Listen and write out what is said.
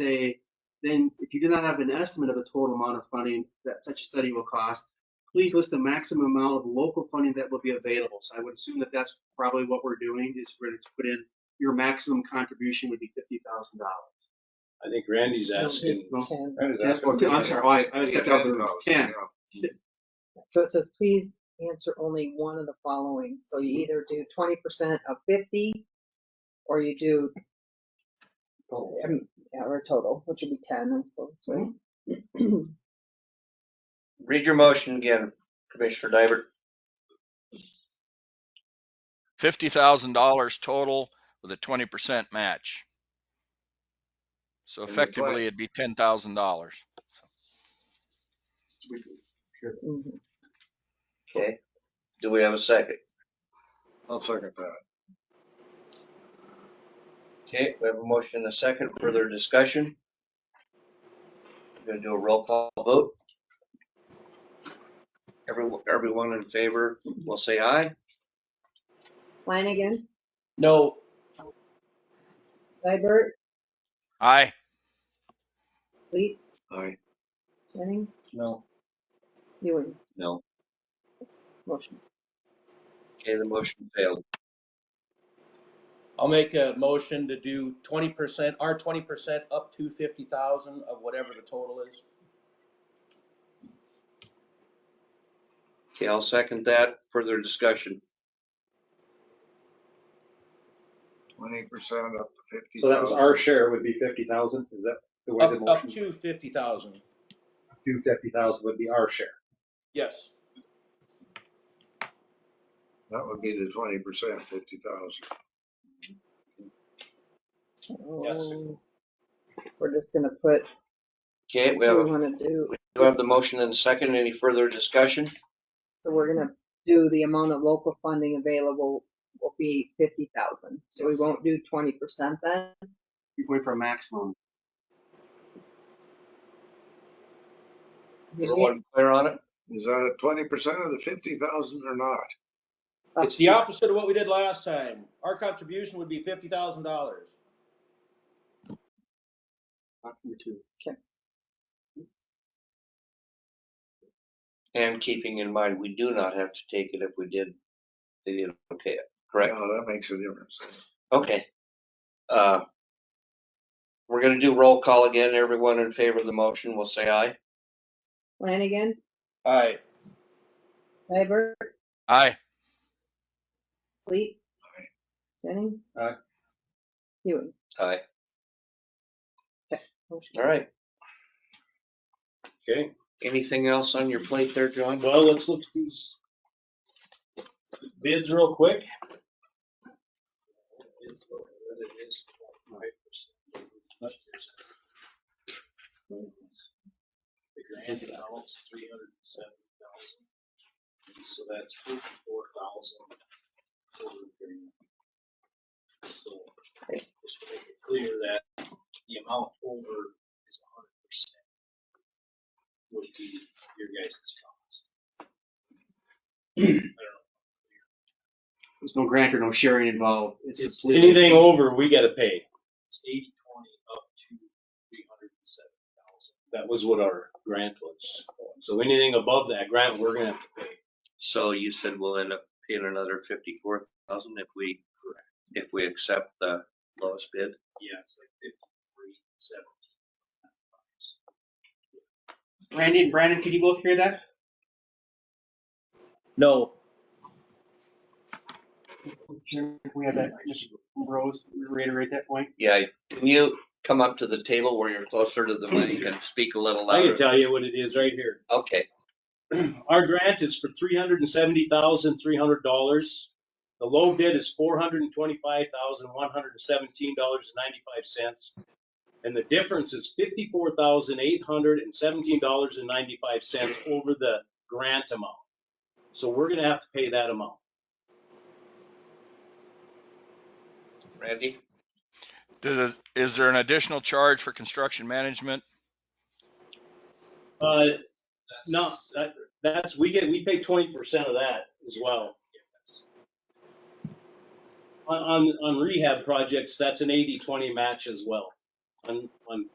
say, then if you do not have an estimate of the total amount of funding that such a study will cost, please list the maximum amount of local funding that will be available. So I would assume that that's probably what we're doing is we're going to put in your maximum contribution would be fifty thousand dollars. I think Randy's No, asking, it's 10. Or, two- I'm sorry, oh, I, I was stepped out of the room. Ten. So it says, please answer only one of the following. So you either do twenty percent of fifty, or you do, um, yeah, or total, which would be ten, I suppose, right? Read your motion again, Commissioner David. fifty thousand dollars total with a twenty percent match. So And that's why- effectively, it'd be ten thousand dollars. Mhm. Okay. Do we have a second? I'll second that. Okay, we have a motion and a second. Further discussion? We're gonna do a roll call vote. Everyone, everyone in favor will say aye. Flanagan, No. Libert, Aye, Leet, Aye. Jennings, No. Ewing, No. motion. Okay, the motion failed. I'll make a motion to do twenty percent, our twenty percent up to fifty thousand of whatever the total is. Okay, I'll second that. Further discussion. Twenty percent up to fifty. so that was our share would be fifty thousand, is that the way the Up, up motion? to fifty thousand, Two fifty thousand would be our share. yes. That would be the twenty percent, fifty thousand. So We're just gonna put, Okay, we have, so a- we wanna do, we have the motion and a second. Any further discussion? so we're gonna do the amount of local funding available will be fifty thousand. So we Yes. won't do twenty percent then? You're going for a maximum. Everyone clear on it? Is that twenty percent of the fifty thousand or not? Up It's the opposite of what we did last time. Our contribution would be fifty thousand dollars. That's number two. And keeping in mind, we do not have to take it if we did, they didn't okay it, correct? No, that makes a difference. Okay. Uh, We're gonna do roll call again. Everyone in favor of the motion will say aye. Flanagan, Aye. Libert, aye, Sleep. Aye. Jennings. Aye. Hewitt. Aye. Motion. All right. Okay, Anything else on your plate there, John? well, let's look at these bids real quick. The grand balance, three hundred and seven thousand. So that's fifty-four thousand. So, just to make it clear that the amount over is hundred percent would be your guys' cost. I don't know. There's no grant or no sharing involved. It's It's completely. anything over, we gotta pay. It's eighty, twenty, up to three hundred and seven thousand. That was what our grant was. So anything above that grant, we're gonna have to pay. So you said we'll end up paying another fifty-four thousand if we, if we accept the lowest bid? Yeah, it's like fifty-three, seventeen. Randy and Brandon, could you both hear that? No, Can we have that, Mr. Rose, reiterate that point? Yeah, can you come up to the table where you're closer to the mic and speak a little I can louder? tell you what it is right here. Okay. Our grant is for three hundred and seventy thousand, three hundred dollars. The low bid is four hundred and twenty-five thousand, one hundred and seventeen dollars and ninety-five cents. And the difference is fifty-four thousand, eight hundred and seventeen dollars and ninety-five cents over the grant amount. So we're gonna have to pay that amount. Randy? Does it- is there an additional charge for construction management? Uh, no, that, that's, we get, we pay twenty percent of that as well. On, on, on rehab projects, that's an eighty-twenty match as well, on, on